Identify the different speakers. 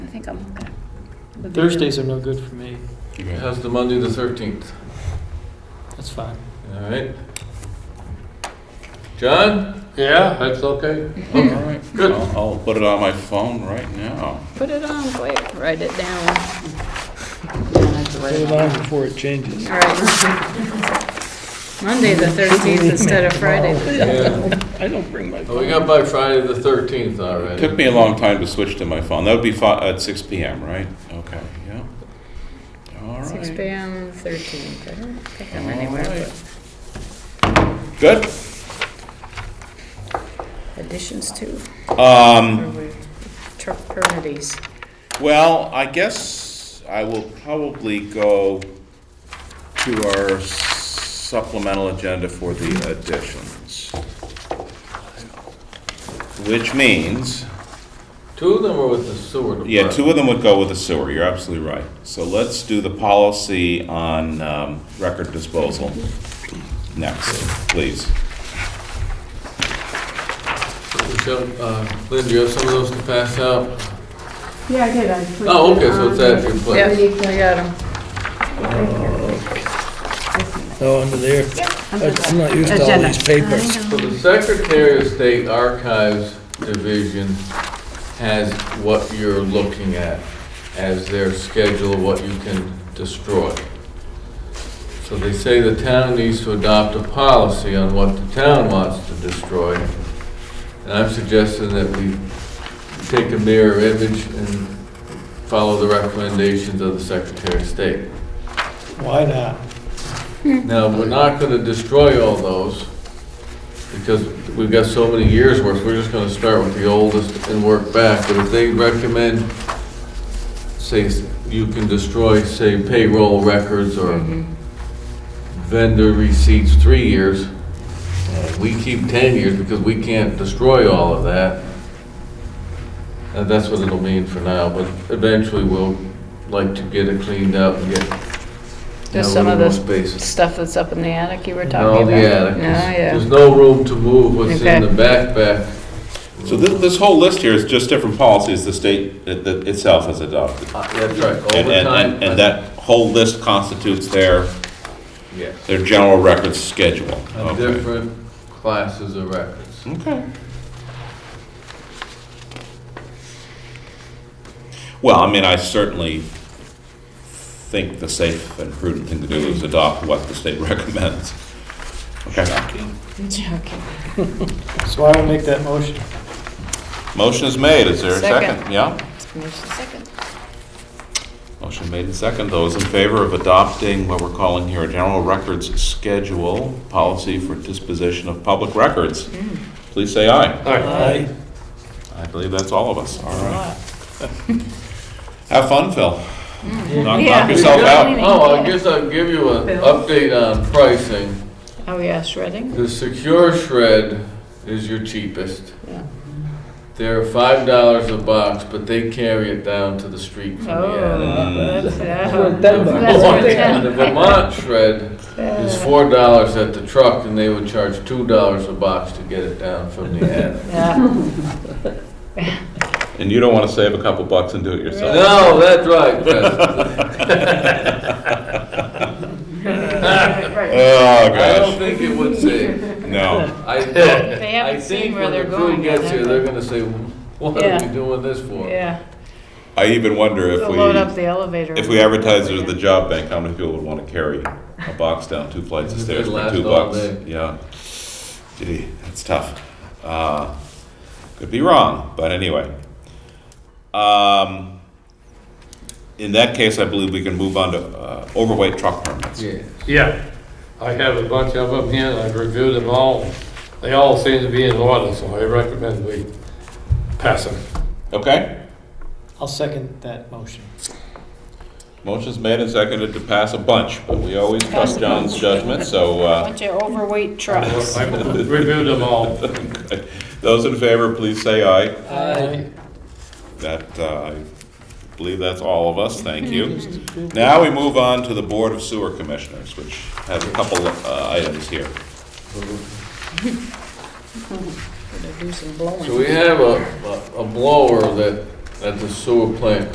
Speaker 1: think I'm good. The video-
Speaker 2: Thursdays are no good for me.
Speaker 3: How's the Monday, the 13th?
Speaker 2: That's fine.
Speaker 3: All right. John?
Speaker 4: Yeah, that's okay.
Speaker 3: Okay. Good.
Speaker 5: I'll, I'll put it on my phone right now.
Speaker 1: Put it on, quick, write it down. Yeah, I have to write it down.
Speaker 2: before it changes.
Speaker 1: All right. Monday, the thirteenth instead of Friday.
Speaker 3: Yeah.
Speaker 2: I don't bring my
Speaker 3: Well, We got by Friday, the 13th already.
Speaker 5: Took me a long time to switch to my phone. That would be fi- at six PM, right? Okay, yeah. All right.
Speaker 1: Six P M, thirteenth. I don't think I'm
Speaker 5: All
Speaker 1: anywhere,
Speaker 5: right.
Speaker 1: but
Speaker 5: Good.
Speaker 1: additions too,
Speaker 5: Um,
Speaker 1: or we, truck permittees.
Speaker 5: well, I guess I will probably go to our supplemental agenda for the additions. Which means,
Speaker 3: Two of them are with the sewer department.
Speaker 5: yeah, two of them would go with the sewer. You're absolutely right. So let's do the policy on, um, record disposal next, please.
Speaker 3: them. Lynn, do uh, you have some of those to pass out?
Speaker 6: Yeah, I did. I put
Speaker 3: Oh,
Speaker 6: it
Speaker 3: okay, so
Speaker 6: on
Speaker 3: it's at your
Speaker 6: the-
Speaker 1: Yeah,
Speaker 3: place.
Speaker 1: I got them.
Speaker 2: Oh, under there. I- I'm not used to all
Speaker 6: Agenda.
Speaker 2: these papers.
Speaker 3: So the Secretary of State Archives Division has what you're looking at as their schedule, of what you can destroy. So they say the town needs to adopt a policy on what the town wants to destroy. And I'm suggesting that we take a mirror image and follow the recommendations of the Secretary of State.
Speaker 2: Why not?
Speaker 1: Mm-hmm.
Speaker 3: Now, we're not gonna destroy all those, because we've got so many years worth, we're just gonna start with the oldest and work back, but if they recommend, say, you can destroy, say, payroll records or
Speaker 1: Mm-hmm.
Speaker 3: vendor receipts three years, and we keep ten years because we can't destroy all of that, and that's what it'll mean for now, but eventually we'll like to get it cleaned up and get, you know, a
Speaker 1: Just some
Speaker 3: little
Speaker 1: of
Speaker 3: more
Speaker 1: the
Speaker 3: space.
Speaker 1: stuff that's up in the attic you were talking
Speaker 3: No,
Speaker 1: about.
Speaker 3: the attic.
Speaker 1: No,
Speaker 3: There's- There's
Speaker 1: Ah, yeah.
Speaker 3: no room to move what's in
Speaker 1: Okay.
Speaker 3: the backpack.
Speaker 5: So this, this whole list here is just different policies the state it- that itself has adopted.
Speaker 3: Uh, That's right,
Speaker 5: And, and-
Speaker 3: overtime.
Speaker 5: and, and that whole list constitutes their,
Speaker 3: Yes,
Speaker 5: their general records schedule.
Speaker 3: of
Speaker 5: Okay.
Speaker 3: different classes of records.
Speaker 5: Okay. Well, I mean, I certainly think the safe and prudent thing to do is adopt what the state recommends. Okay.
Speaker 1: Joking.
Speaker 2: So I will make that motion.
Speaker 5: Motion is made. Is there a
Speaker 1: Second.
Speaker 5: second? Yeah?
Speaker 1: Second.
Speaker 5: Motion made and second. Those in favor of adopting what we're calling here a general records schedule policy for disposition of public records, please say aye.
Speaker 2: Aye.
Speaker 5: I believe that's all of us. All right. Have fun, Phil. Knock
Speaker 1: Mm. Yeah.
Speaker 5: knock yourself out.
Speaker 3: Oh, I guess I'll give you an update on pricing.
Speaker 1: Oh, yeah, shredding?
Speaker 3: The secure shred is your cheapest.
Speaker 1: Yeah.
Speaker 3: They're five dollars a box, but they carry it down to the street from the attic.
Speaker 1: Oh, that's,
Speaker 3: The
Speaker 1: yeah. That's worth
Speaker 3: Vermont-
Speaker 1: ten.
Speaker 3: The Vermont shred is four dollars at the truck, and they would charge two dollars a box to get it down from the attic.
Speaker 1: Yeah.
Speaker 5: And you don't want to save a couple bucks and do it yourself.
Speaker 3: No, that's right. President.
Speaker 5: Oh,
Speaker 3: I don't
Speaker 5: gosh.
Speaker 3: think it would say.
Speaker 5: No.
Speaker 3: I,
Speaker 1: They
Speaker 3: I
Speaker 1: haven't
Speaker 3: think
Speaker 1: seen where
Speaker 3: when the
Speaker 1: they're
Speaker 3: crew
Speaker 1: going yet.
Speaker 3: gets here,
Speaker 1: have
Speaker 3: they're
Speaker 1: they?
Speaker 3: gonna say, what
Speaker 1: Yeah.
Speaker 3: are we doing this for?
Speaker 1: Yeah,
Speaker 5: I even wonder if
Speaker 1: they'll load up
Speaker 5: we,
Speaker 1: the elevator.
Speaker 5: if we advertise it at the job bank, how many people would want to carry a box down two flights of
Speaker 3: It'd
Speaker 5: stairs for
Speaker 3: last
Speaker 5: two
Speaker 3: all
Speaker 5: bucks?
Speaker 3: day.
Speaker 5: Yeah. Gee, that's tough. Uh, Could be wrong, but anyway. Um, In that case, I believe we can move on to uh, overweight truck permits.
Speaker 3: Yeah.
Speaker 4: Yeah, I have a bunch of them here, and I've reviewed them all. They all seem to be in order, so I recommend we pass them.
Speaker 5: Okay?
Speaker 2: I'll second that motion.
Speaker 5: Motion's made and seconded to pass a bunch, but we always trust John's judgment, so uh,
Speaker 1: Bunch of overweight trucks.
Speaker 4: I've reviewed them all.
Speaker 5: Those in favor, please say aye.
Speaker 2: Aye.
Speaker 5: That, uh, I believe that's all of us, thank you. Now we move on to the Board of Sewer Commissioners, which has a couple of uh, items here.
Speaker 1: Gonna do some blowing.
Speaker 3: So we have a, a- a blower that, at the sewer plant